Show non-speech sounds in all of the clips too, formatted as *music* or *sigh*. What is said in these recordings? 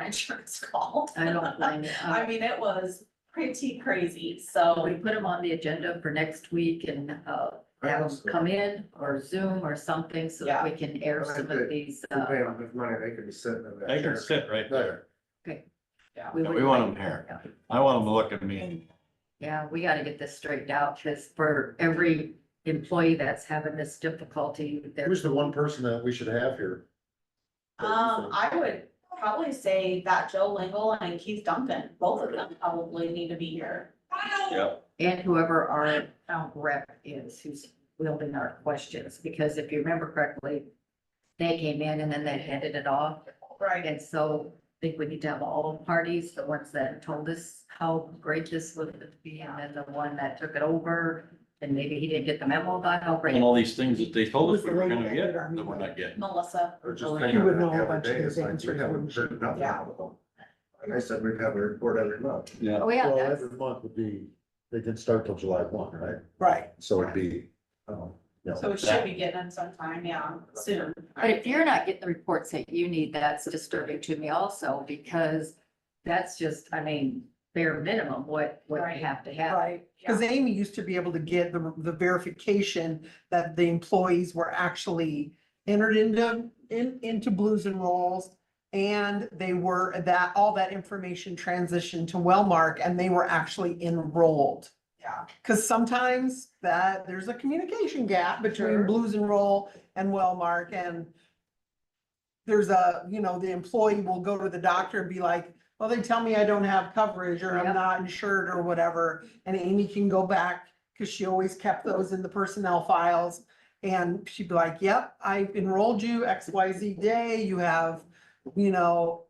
*laughs* insurance called. Um, I don't blame you. Um, I mean, it was pretty crazy, so We put them on the agenda for next week and, uh, have them Honestly, come in or Zoom or something so that we can air Yeah. some of these, you uh. pay them with money, they could be sitting in that. They can chair. sit right there. Yeah, we wouldn't want like- 'em here. I want them to look at me and Yeah, we gotta get this straightened out, cause for every employee that's having this difficulty, they're. Who's the one person that we should have here? um I would probably say that Joe Lingle and Keith Duncan, both of them probably need to be here. And whoever our town rep is who's wielding our questions, because if you remember correctly, they came in and then they handed it off. Right. And so I think we need to have all parties, the ones that told us how great this would be, and then the one that took it over. And maybe he didn't get the memo about how great. and all these things that they told us we Who's the were lady gonna that get, did our that we're meeting? not getting. Melissa, Or just You thinking would about know a the other bunch of day, it's these like, answers we haven't heard nothing Yeah. out of them. And I said we'd have a report every month. Yeah. Oh, yeah, Well, that's, every month would be, they didn't start till July one, right? Right. So it'd be, um, you know, so we should be getting them sometime, yeah, soon. but if you're not getting the reports that you need, that's disturbing to me also, because that's just, I mean, bare minimum, what, what we Right. have to have. Right, because Amy used to be able to get the, the verification that the employees were actually entered into, in, into blues and rolls. And they were that, all that information transitioned to Wellmark and they were actually enrolled. Yeah. Because sometimes that, there's a communication gap Sure. between Blues and Roll and Wellmark and there's a, you know, the employee will go to the doctor and be like, well, they tell me I don't have coverage or Yep. I'm not insured or whatever. And Amy can go back because she always kept those in the personnel files. And she'd be like, yep, I enrolled you X, Y, Z day. You have, you know,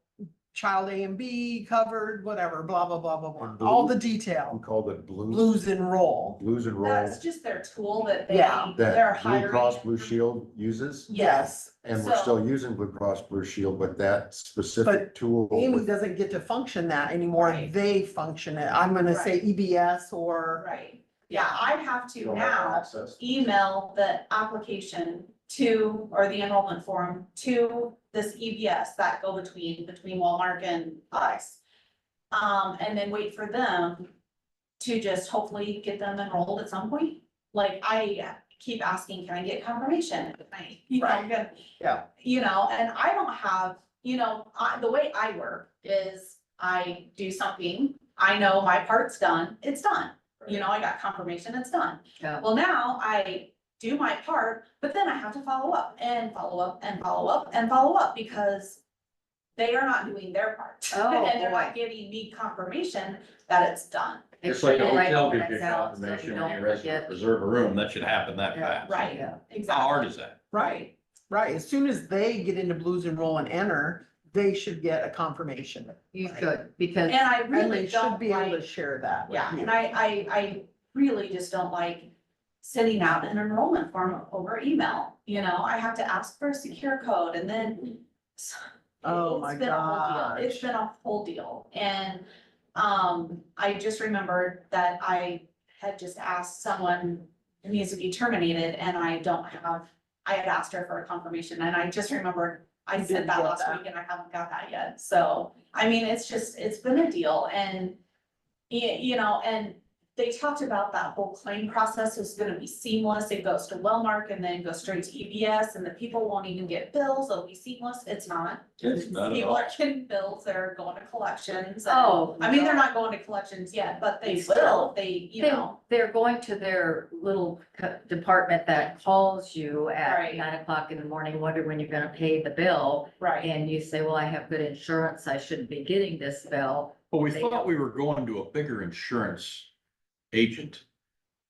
child A and B covered, whatever, blah, blah, blah, blah, blah. All the detail we called it blues, blues and roll. blues and roll. That's just their tool that they, Yeah. they're That hiring. Blue Cross Blue Shield uses, Yes, and we're So- still using Blue Cross Blue Shield, but that specific tool. Amy with- doesn't get to function that anymore. Right. They function it. I'm gonna say EBS or, right. Yeah, I'd have You to don't have now access. email the application to, or the enrollment form to this EBS, that go-between, between Walmart and us. Um, and then wait for them to just hopefully get them enrolled at some point. Like I keep asking, can I get confirmation? Can I- You know, I'm gonna- Yeah. You know, and I don't have, you know, I, the way I work is I do something, I know my part's done, it's done. You know, I got confirmation, it's done. Yeah. Well, now I do my part, but then I have to follow up and follow up and follow up and follow up because they are not doing their part. *laughs* Oh, And they're not boy. giving me confirmation that it's done. Make It's like a sure you write hotel all gives you that out so confirmation you when you don't res- forget. reserve a room, that should happen that Yeah. fast. Right, Yeah. How exactly. hard is that? right, right. As soon as they get into blues and roll and enter, they should get a confirmation. You could, because And I And really they should don't be able to like, share that. with yeah, you. and I, I, I really just don't like sending out an enrollment form over email, you know, I have to ask for a secure code and then Oh It's my been a whole gosh. deal. It's been a whole deal, and, um, I just remembered that I had just asked someone who needs to be terminated, and I don't have, I had asked her for a confirmation, and I just remembered I You said didn't that get last that. week and I haven't got that yet, so, I mean, it's just, it's been a deal, and you, you know, and they talked about that whole claim process is gonna be seamless, it goes to Wellmark and then goes straight to EBS, and the people won't even get bills, it'll be seamless, it's not. It's not at People all. are getting bills, they're going to collections. and- Oh, I mean, they're not going to collections yet, but they They will, still- if they, you They- know, They're going to their little co- department that calls you at Right. nine o'clock in the morning, wondering when you're gonna pay the bill. right, And you say, well, I have good insurance, I shouldn't be getting this bill. But we They thought don't. we were going to a bigger insurance agent.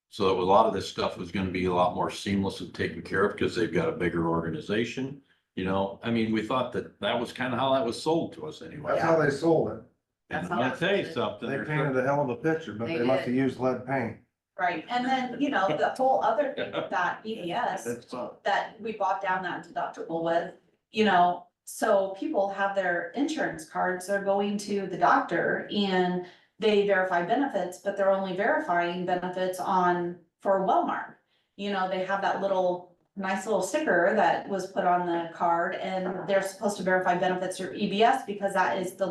So that a lot of this stuff was gonna be a lot more seamless and taken care of because they've got a bigger organization. You know, I mean, we thought that that was kind of how that was sold to us anyway. That's how they sold it. And That's I'm how gonna it tell you was. something. They there's painted a hell of a picture, but They they must did. have used lead paint. right. And then, you know, the whole other thing with that EBS That's all. that we bought down that deductible with, you know, so people have their insurance cards, they're going to the doctor and they verify benefits, but they're only verifying benefits on, for Wellmark. You know, they have that little, nice little sticker that was put on the card and they're supposed to verify benefits through EBS E because that is the